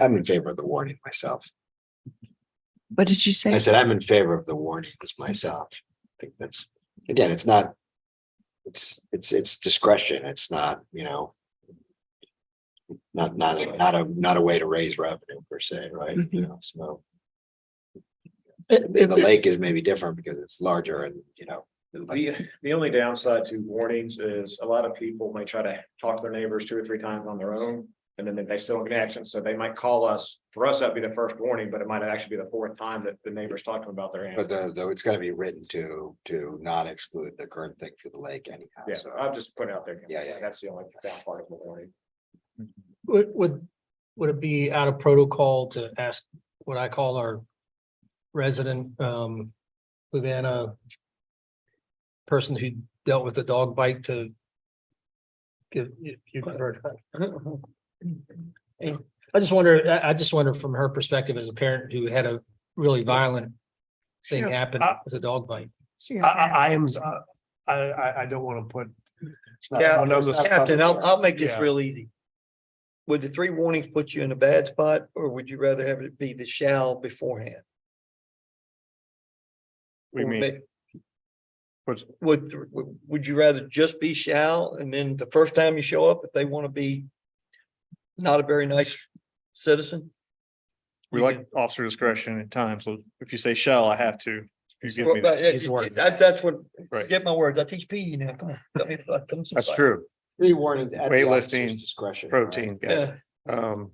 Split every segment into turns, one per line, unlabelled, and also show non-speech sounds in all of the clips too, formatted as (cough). I'm in favor of the warning myself.
What did you
I
say?
said I'm in favor of the warnings myself. I think that's, again, it's not. It's, it's, it's discretion. It's not, you know. Not, not, a- not a, not a way to raise revenue per se, right? You know, so
Mm-hmm.
the the lake is maybe different because it's larger and, you know.
The, the only downside to warnings is a lot of people may try to talk to their neighbors two or three times on their own. And then they still don't get action, so they might call us, for us, that'd be the first warning, but it might actually be the fourth time that the neighbors talk to them about their
But
animal.
the, though it's gotta be written to, to not exclude the current thing for the lake anyhow,
Yeah,
so.
I'll just put it out there.
Yeah, yeah.
That's the only bad part of the warning.
Would, would, would it be out of protocol to ask what I call our resident, um, Luvanna person who dealt with the dog bite to give, you, you heard. I just wonder, I, I just wonder from her perspective as a parent who had a really violent thing happen as a dog bite.
I, I, I am, uh, I, I, I don't want to put. it's not-
Yeah,
I know this-
Captain, I'll, I'll make this
Yeah.
real easy. Would the three warnings put you in a bad spot, or would you rather have it be the shall beforehand?
We
Or
mean,
may-
What's-
Would, th- would, would you rather just be shall, and then the first time you show up, if they want to be not a very nice citizen?
we like officer discretion in time, so if you say shall, I have to. You give me
Well, but
that.
His
it-
word.
That, that's what,
Right.
get my words, I teach PE now, come on. let me- let them
That's
survive.
true,
Three warnings. at the officer's
Weightlifting,
Discretion. right?
protein, yeah,
Yeah,
um.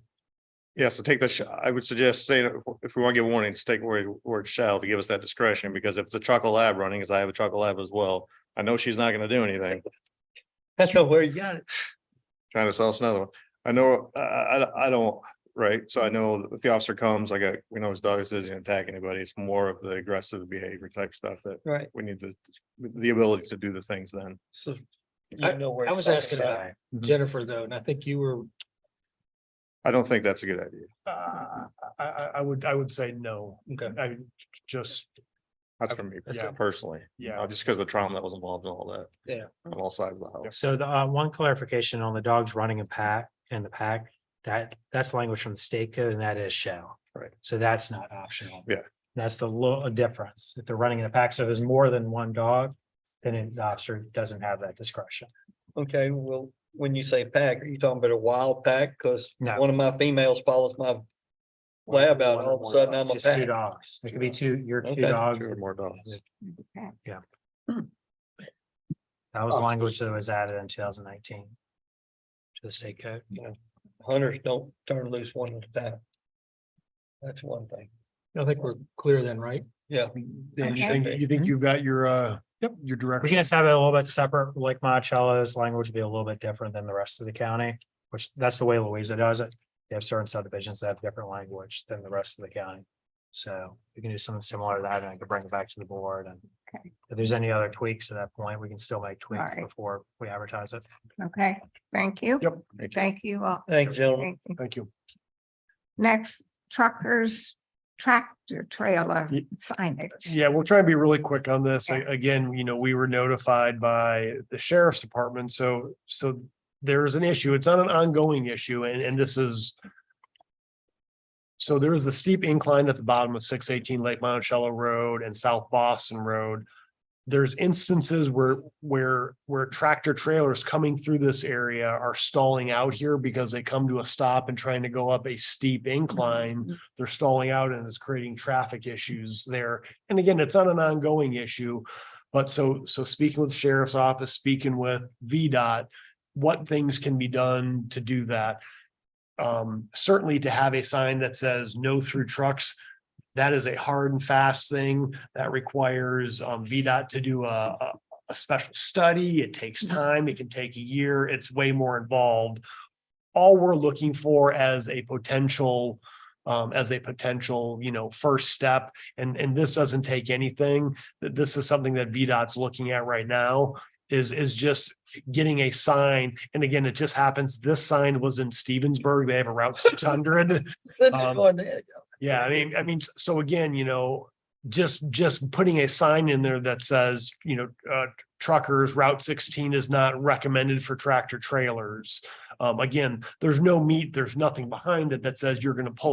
Yeah, so take the, sh- I would suggest saying, if we want to give warnings, take word, word shall to give us that discretion, because if it's a chocolate lab running, because I have a chocolate lab as well. I know she's not gonna do anything.
(laughs)
that's not where you got it.
trying to sell us another one. I know, I, I, I don't, right? So I know if the officer comes, like, I- we know his dog isn't gonna attack anybody. It's more of the aggressive behavior type stuff that
Right.
we need to, the ability to do the things then.
So. you
I-
know where
I
it's
was
at.
asking about Jennifer though, and I think you were
I don't think that's a good idea.
Uh, I, I, I would, I would say no.
Okay.
I just,
That's for me
Yeah.
personally,
yeah.
uh, just because the trauma that was involved and all that.
Yeah.
On all sides of the house.
So the, uh, one clarification on the dogs running a pack and the pack, that, that's language from the state code and that is shall.
Right.
So that's not optional.
Yeah.
That's the little difference. If they're running in a pack, so there's more than one dog, then the officer doesn't have that discretion.
Okay, well, when you say pack, are you talking about a wild pack? Cause
No.
one of my females follows my lab out, all of a sudden I'm a
Just two
pack.
dogs. It could be two, your two
Okay.
dogs.
Two or more dogs.
That was
Oh.
language that was added in two thousand nineteen. To the state code.
Hunters don't turn loose one at a time. That's one thing.
I think we're clear then, right?
Yeah.
And you
Okay.
think, you think you've got your, uh, yep, your
Mm-hmm. We
direction.
can just have it a little bit separate, like Monticello's language will be a little bit different than the rest of the county, which that's the way Louisa does it. They have certain subdivisions that have different language than the rest of the county. So we can do something similar to that and I can bring it back to the board and
Okay.
if there's any other tweaks at that point, we can still make tweaks
Alright.
before we advertise it.
Okay, thank you.
Yep.
Thank you all.
Thanks, gentlemen.
Thank you.
Thank you.
Next, truckers tractor trailer
Ye-
signage.
Yeah, we'll try and be really quick on this. A- Again, you know, we were notified by the sheriff's department, so, so there's an issue. It's not an ongoing issue and, and this is so there is the steep incline at the bottom of six eighteen Lake Monticello Road and South Boston Road. There's instances where, where, where tractor trailers coming through this area are stalling out here because they come to a stop and trying to go up a steep incline they're stalling out and it's creating traffic issues there. And again, it's not an ongoing issue. But so, so speaking with sheriff's office, speaking with VDOT, what things can be done to do that? Um, certainly to have a sign that says no through trucks. That is a hard and fast thing that requires um VDOT to do a, a, a special study. It takes time. It can take a year. It's way more involved. All we're looking for as a potential um, as a potential, you know, first step. And, and this doesn't take anything. That this is something that VDOT's looking at right now is, is just getting a sign. And again, it just happens, this sign was in Stevensburg. They have a Route six hundred.
Such a
Um,
fun day.
Yeah, I mean, I mean, s- so again, you know, just, just putting a sign in there that says, you know, uh, truckers, Route sixteen is not recommended for tractor trailers. Um, again, there's no meat, there's nothing behind it that says you're gonna pull